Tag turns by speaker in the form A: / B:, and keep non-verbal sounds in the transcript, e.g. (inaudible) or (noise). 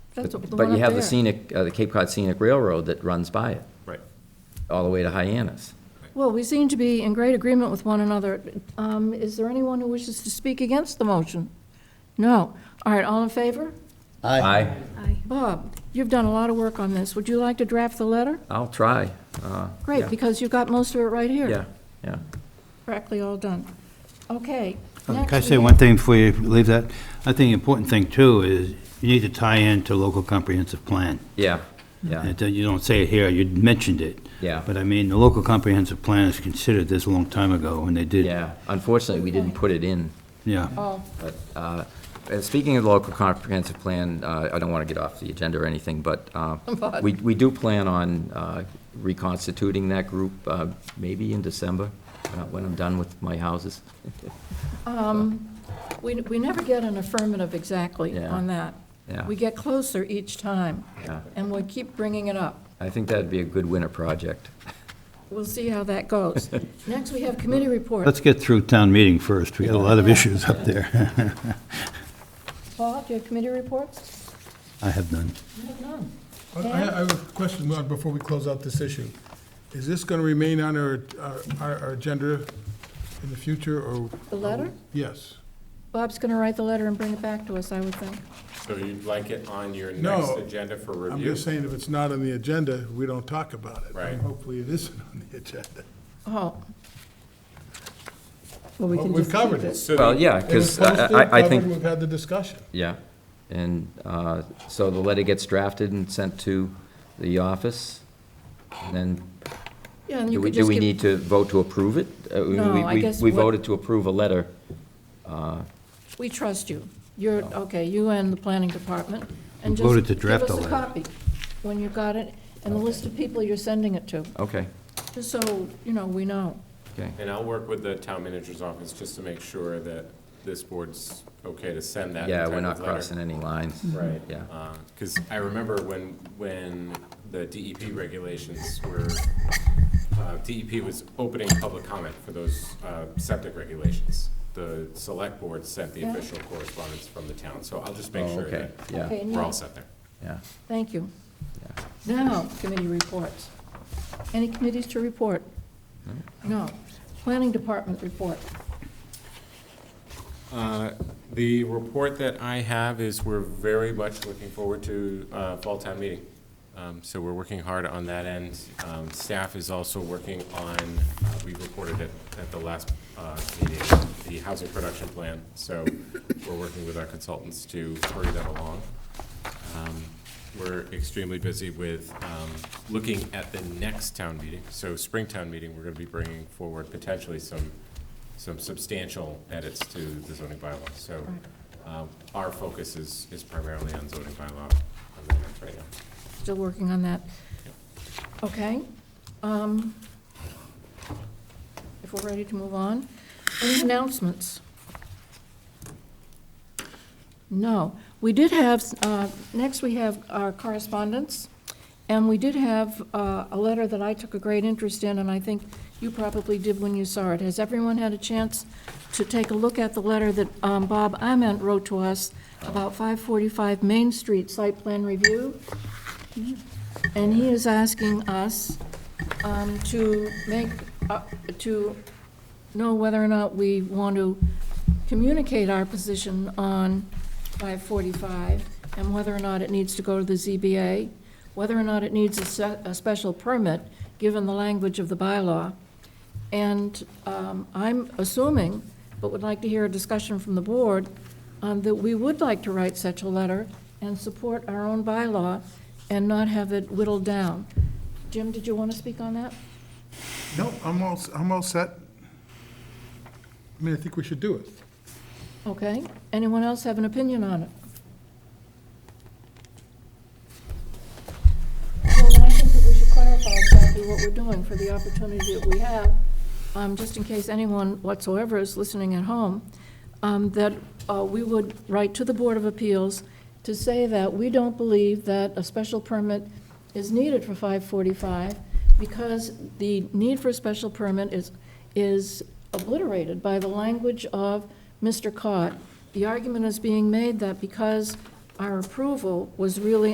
A: That's
B: But-
A: the
B: But
A: one
B: you
A: up
B: have the
A: there.
B: scenic, uh, the Cape Cod Scenic Railroad that runs by it,
C: Right.
B: all the way to Hyannis.
A: Well, we seem to be in great agreement with one another. Um, Is there anyone who wishes to speak against the motion? No. All right, all in favor?
B: I,
A: Bob, you've done a lot of work on this. Would you like to draft the letter?
B: I'll try. uh, yeah,
A: Great, because you've got most of it right here.
B: Yeah, yeah.
A: Practically all done. Okay.
D: Can
A: next
D: I
A: we
D: say
A: have-
D: one thing before you leave that? I think the important thing, too, is you need to tie into local comprehensive plan.
B: Yeah, yeah,
D: And then You don't say it here, you mentioned it.
B: Yeah.
D: But I mean, the local comprehensive plan is considered this a long time ago, and they did.
B: yeah. Unfortunately, we didn't put it in.
D: Yeah.
A: Oh,
B: But, uh, and speaking of the local comprehensive plan, uh, I don't want to get off the agenda or anything, but uh,
A: But-
B: we we do plan on uh, reconstituting that group uh, maybe in December, uh, when I'm done with my houses. (laughs)
A: um, we, we never get an affirmative exactly
B: Yeah.
A: on that.
B: Yeah.
A: We get closer each time,
B: Yeah.
A: and we keep bringing it up.
B: I think that'd be a good winter project.
A: We'll see how that
B: (laughs)
A: goes. Next, we have committee reports.
D: Let's get through town meeting first. We got a lot of issues up there. (laughs)
A: Paul, do you have committee reports?
D: I have none.
A: I have none.
E: I I have a question, Mark, before we close out this issue. Is this going to remain on our, our- our our agenda in the future, or?
A: The letter?
E: Yes.
A: Bob's going to write the letter and bring it back to us, I would think.
C: So you'd like it on your
E: No,
C: next agenda for review?
E: I'm just saying, if it's not on the agenda, we don't talk about it.
C: Right.
E: Hopefully, it isn't on
B: (laughs)
E: the agenda.
A: Oh. Well, we
E: Well,
A: can
E: we've
A: just
E: covered
A: keep
E: it.
C: So
B: Well,
C: the-
B: yeah,
E: It was
B: because I I- I
E: posted,
B: think.
E: covered, We've had the discussion.
B: Yeah, and uh, so the letter gets drafted and sent to the office, and then,
A: Yeah, and
B: do
A: you
B: we,
A: could
B: do
A: just
B: we
A: give,
B: need to vote to approve it? Uh, we-
A: No,
B: we-
A: I
B: we-
A: guess
B: We
A: what-
B: voted to approve a letter,
A: we trust you. You're, okay, you and the planning department. and
D: We
A: just
D: voted to draft the
A: Give us a
D: letter.
A: copy when you've got it, and the list of people you're sending it to,
B: okay,
A: just so, you know, we know.
B: okay,
C: And I'll work with the town manager's office just to make sure that this board's okay to send that.
B: yeah,
C: type
B: we're
C: of
B: not
C: letter.
B: crossing any lines.
C: Right.
B: Yeah.
C: Because I remember when, when the DEP regulations were, uh, DEP was opening public comment for those uh, septic regulations. The select board sent the
A: Yeah.
C: official correspondence from the town, so I'll just
B: Oh,
C: make sure
B: okay,
C: that
B: yeah,
A: Okay,
C: we're all
A: now,
C: set there.
B: yeah.
A: thank you. Now, committee reports. Any committees to report?
D: Hmm?
A: No. Planning department report.
C: Uh, The report that I have is we're very much looking forward to uh, fall town meeting. Um, So we're working hard on that end. Um, Staff is also working on, uh, we reported it at the last uh, meeting, the housing production plan. So we're working with our consultants to hurry that along. Um, We're extremely busy with um, looking at the next town meeting. So spring town meeting, we're going to be bringing forward potentially some, some substantial edits to the zoning bylaw. So um, our focus is, is primarily on zoning bylaw amendments right now.
A: Still working on that. Okay. um, If we're ready to move on, any announcements? No. We did have, uh, next we have our correspondence, and we did have uh, a letter that I took a great interest in, and I think you probably did when you saw it. Has everyone had a chance to take a look at the letter that um, Bob Ament wrote to us about 545 Main Street site plan review? And he is asking us um, to make, uh, to know whether or not we want to communicate our position on 545, and whether or not it needs to go to the ZBA, whether or not it needs a se- a special permit, given the language of the bylaw. And um, I'm assuming, but would like to hear a discussion from the board, um, that we would like to write such a letter and support our own bylaw and not have it whittled down. Jim, did you want to speak on that?
E: No, I'm all, I'm all set. I mean, I think we should do it.
A: Okay. Anyone else have an opinion on it? Well, then I think that we should clarify exactly what we're doing for the opportunity that we have, um, just in case anyone whatsoever is listening at home, um, that uh, we would write to the Board of Appeals to say that we don't believe that a special permit is needed for 545 because the need for a special permit is, is obliterated by the language of Mr. Cott. The argument is being made that because um, our approval was really